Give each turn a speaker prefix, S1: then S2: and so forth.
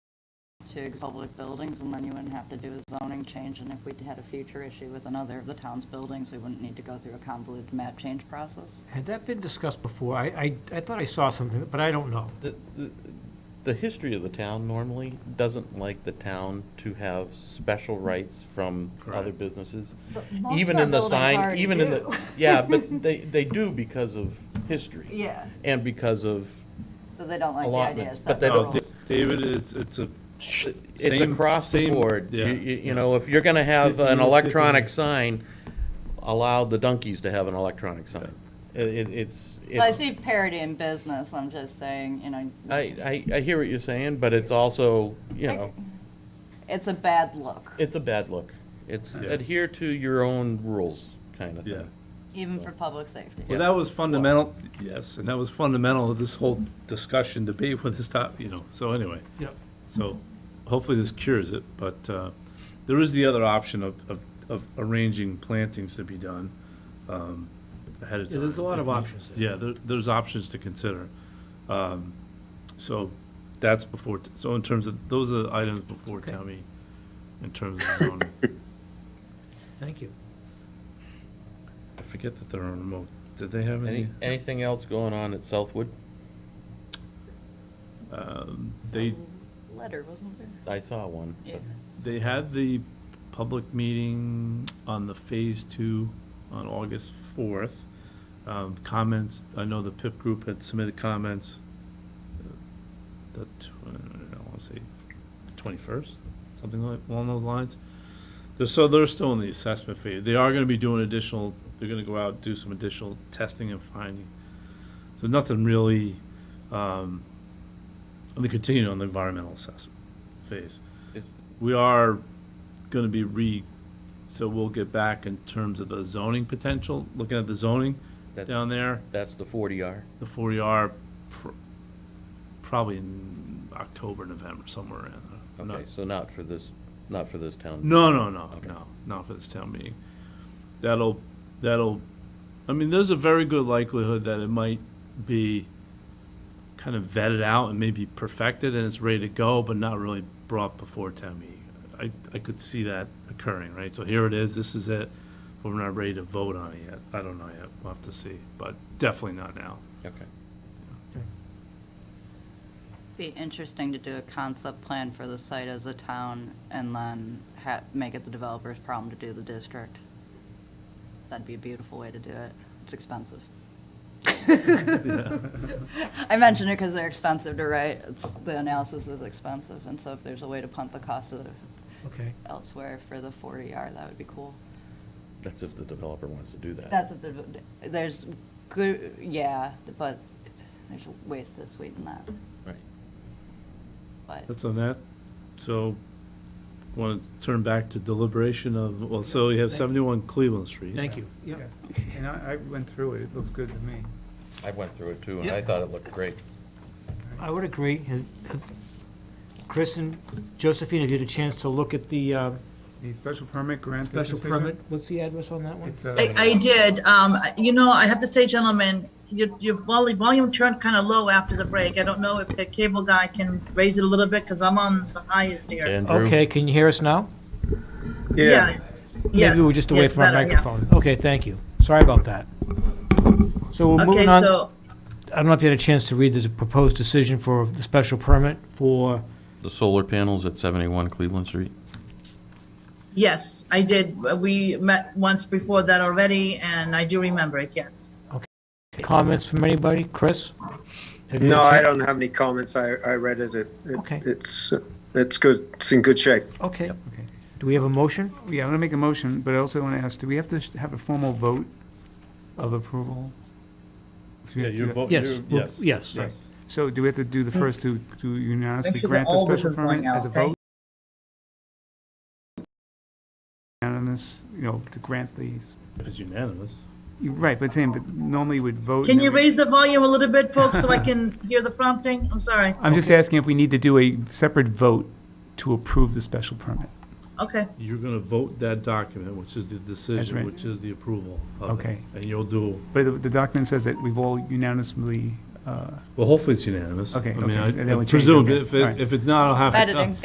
S1: to public buildings, and then you wouldn't have to do a zoning change, and if we had a future issue with another of the town's buildings, we wouldn't need to go through a convoluted map change process.
S2: Had that been discussed before? I, I, I thought I saw something, but I don't know.
S3: The, the- the history of the town normally doesn't like the town to have special rights from other
S2: Correct.
S3: businesses.
S1: But most
S3: Even
S1: of our
S3: in the
S1: buildings
S3: sign,
S1: already
S3: even in
S1: do.
S3: the, yeah, but they, they do because of history.
S1: Yeah,
S3: And because of
S1: so they don't like the idea of
S3: allotments, but
S1: set
S3: they
S4: Oh,
S3: don't,
S1: rules.
S4: Da- David, it's, it's a.
S3: it's
S4: same-
S3: across the
S4: same-
S3: board. You,
S4: yeah.
S3: you you know, if you're gonna have
S4: If you
S3: an
S4: look at the-
S3: electronic sign, allow the donkeys to have an electronic sign. It, it- it's,
S1: Well, I
S3: it's,
S1: see parity in business, I'm just saying, you know.
S3: I, I, I hear what you're saying, but it's also, you
S1: I-
S3: know.
S1: It's a bad look,
S3: It's a bad look. It's
S4: Yeah.
S3: adhere to your own rules kind of
S4: Yeah.
S3: thing.
S1: even for public safety.
S4: Well, that was fundamental, yes, and that was fundamental of this whole discussion, debate with this top, you know, so anyway.
S2: Yep.
S4: So hopefully this cures it, but uh, there is the other option of, of- of arranging plantings to be done um, ahead of
S2: Yeah,
S4: time.
S2: there's a lot of options there.
S4: Yeah, there, there's options to consider. Um, So that's before, t- so in terms of, those are the items before town meeting, in terms of zoning.
S2: Thank you.
S4: I forget that they're on remote. Did they have any?
S3: Any, anything else going on at Southwood?
S4: Um, They,
S1: Letter, wasn't there?
S3: I saw one. but-
S1: Yeah.
S4: They had the public meeting on the Phase Two on August fourth. Um, comments, I know the PIP group had submitted comments. uh, The, tw- I wanna say twenty-first, something like, along those lines. They're, so they're still in the assessment phase. They are gonna be doing additional, they're gonna go out, do some additional testing and finding. So nothing really, um, and they continue on the environmental assessment phase.
S3: Is-
S4: We are gonna be re, so we'll get back in terms of the zoning potential, looking at the zoning
S3: That's,
S4: down there,
S3: that's the forty R.
S4: the forty R, probably in October, November, somewhere around there. I'm not-
S3: Okay, so not for this, not for this town.
S4: no, no, no,
S3: Okay.
S4: no, not for this town meeting. That'll, that'll, I mean, there's a very good likelihood that it might be kind of vetted out and maybe perfected and it's ready to go, but not really brought before town meeting. I, I could see that occurring, right? So here it is, this is it, but we're not ready to vote on it yet. I don't know yet, we'll have to see, but definitely not now.
S3: Okay.
S1: Be interesting to do a concept plan for the site as a town and then ha, make it the developer's problem to do the district. That'd be a beautiful way to do it. It's expensive. I mention it because they're expensive to write. It's, the analysis is expensive, and so if there's a way to punt the cost of
S2: Okay.
S1: elsewhere for the forty R, that would be cool.
S3: That's if the developer wants to do that.
S1: That's what the, there's good, yeah, but there's ways to sweeten that,
S3: Right.
S1: but.
S4: That's on that. So, want to turn back to deliberation of, well, so you have
S2: Thank you.
S4: seventy-one Cleveland Street.
S2: Thank you. Yep.
S5: Yes, and I, I went through it, it looks good to me.
S3: I went through it too, and I
S2: Yeah.
S3: thought it looked great.
S2: I would agree. Has- have- Chris and Josephine, have you had a chance to look at the uh,
S5: The special permit grant
S2: special
S5: decision?
S2: permit? What's the address on that one?
S5: It's, uh,
S6: I, I did. Um, you know, I have to say, gentlemen, your, your vol- volume turned kind of low after the break. I don't know if the cable guy can raise it a little bit because I'm on the highest here.
S3: Andrew?
S2: Okay, can you hear us now?
S6: Yeah. Yes.
S2: Maybe we're just away
S6: Yes,
S2: from our
S6: better, yeah.
S2: microphones. Okay, thank you. Sorry about that. So we're
S6: Okay,
S2: moving on.
S6: so,
S2: I don't know if you had a chance to read the proposed decision for the special permit for,
S3: The solar panels at seventy-one Cleveland Street?
S6: yes, I did. We met once before that already, and I do remember it, yes.
S2: comments from anybody? Chris? Have you
S7: No,
S2: had a
S7: I
S2: chan-
S7: don't have any comments. I, I read it. It, it-
S2: Okay.
S7: it's, it's good. It's in good shape.
S2: Okay. Do we have a motion?
S5: Yeah, I'm gonna make a motion, but I also wanna ask, do we have to sh- have a formal vote of approval?
S4: Yeah,
S5: Do we have to
S4: your
S5: do that?
S4: vote,
S2: Yes,
S4: your-
S2: we'll-
S4: yes.
S2: yes, right.
S5: So do we have to do the first to, to
S6: Make
S5: unanimously
S6: sure that
S5: grant the
S6: Mm. all this
S5: special
S6: is going
S5: permit as a
S6: out, okay?
S5: vote? Unanimous, you know, to grant these,
S4: If it's unanimous.
S5: You're right, but same, but normally we'd vote.
S6: Can
S5: and
S6: you
S5: then we-
S6: raise the volume a little bit, folks, so I can hear the prompting? I'm sorry.
S5: I'm just asking if we need to do a separate vote to approve the special permit.
S6: Okay,
S4: You're gonna vote that document, which is the decision,
S5: right.
S4: which is the approval of it.
S5: Okay.
S4: And you'll do,
S5: But the- the document says that we've all unanimously, uh,
S4: well, hopefully it's unanimous.
S5: Okay,
S4: I mean,
S5: okay,
S4: I-
S5: and then
S4: I
S5: we change it,
S4: presume,
S5: okay,
S4: if, it-
S5: alright.
S4: if it's not, I'll have to.
S1: Editing.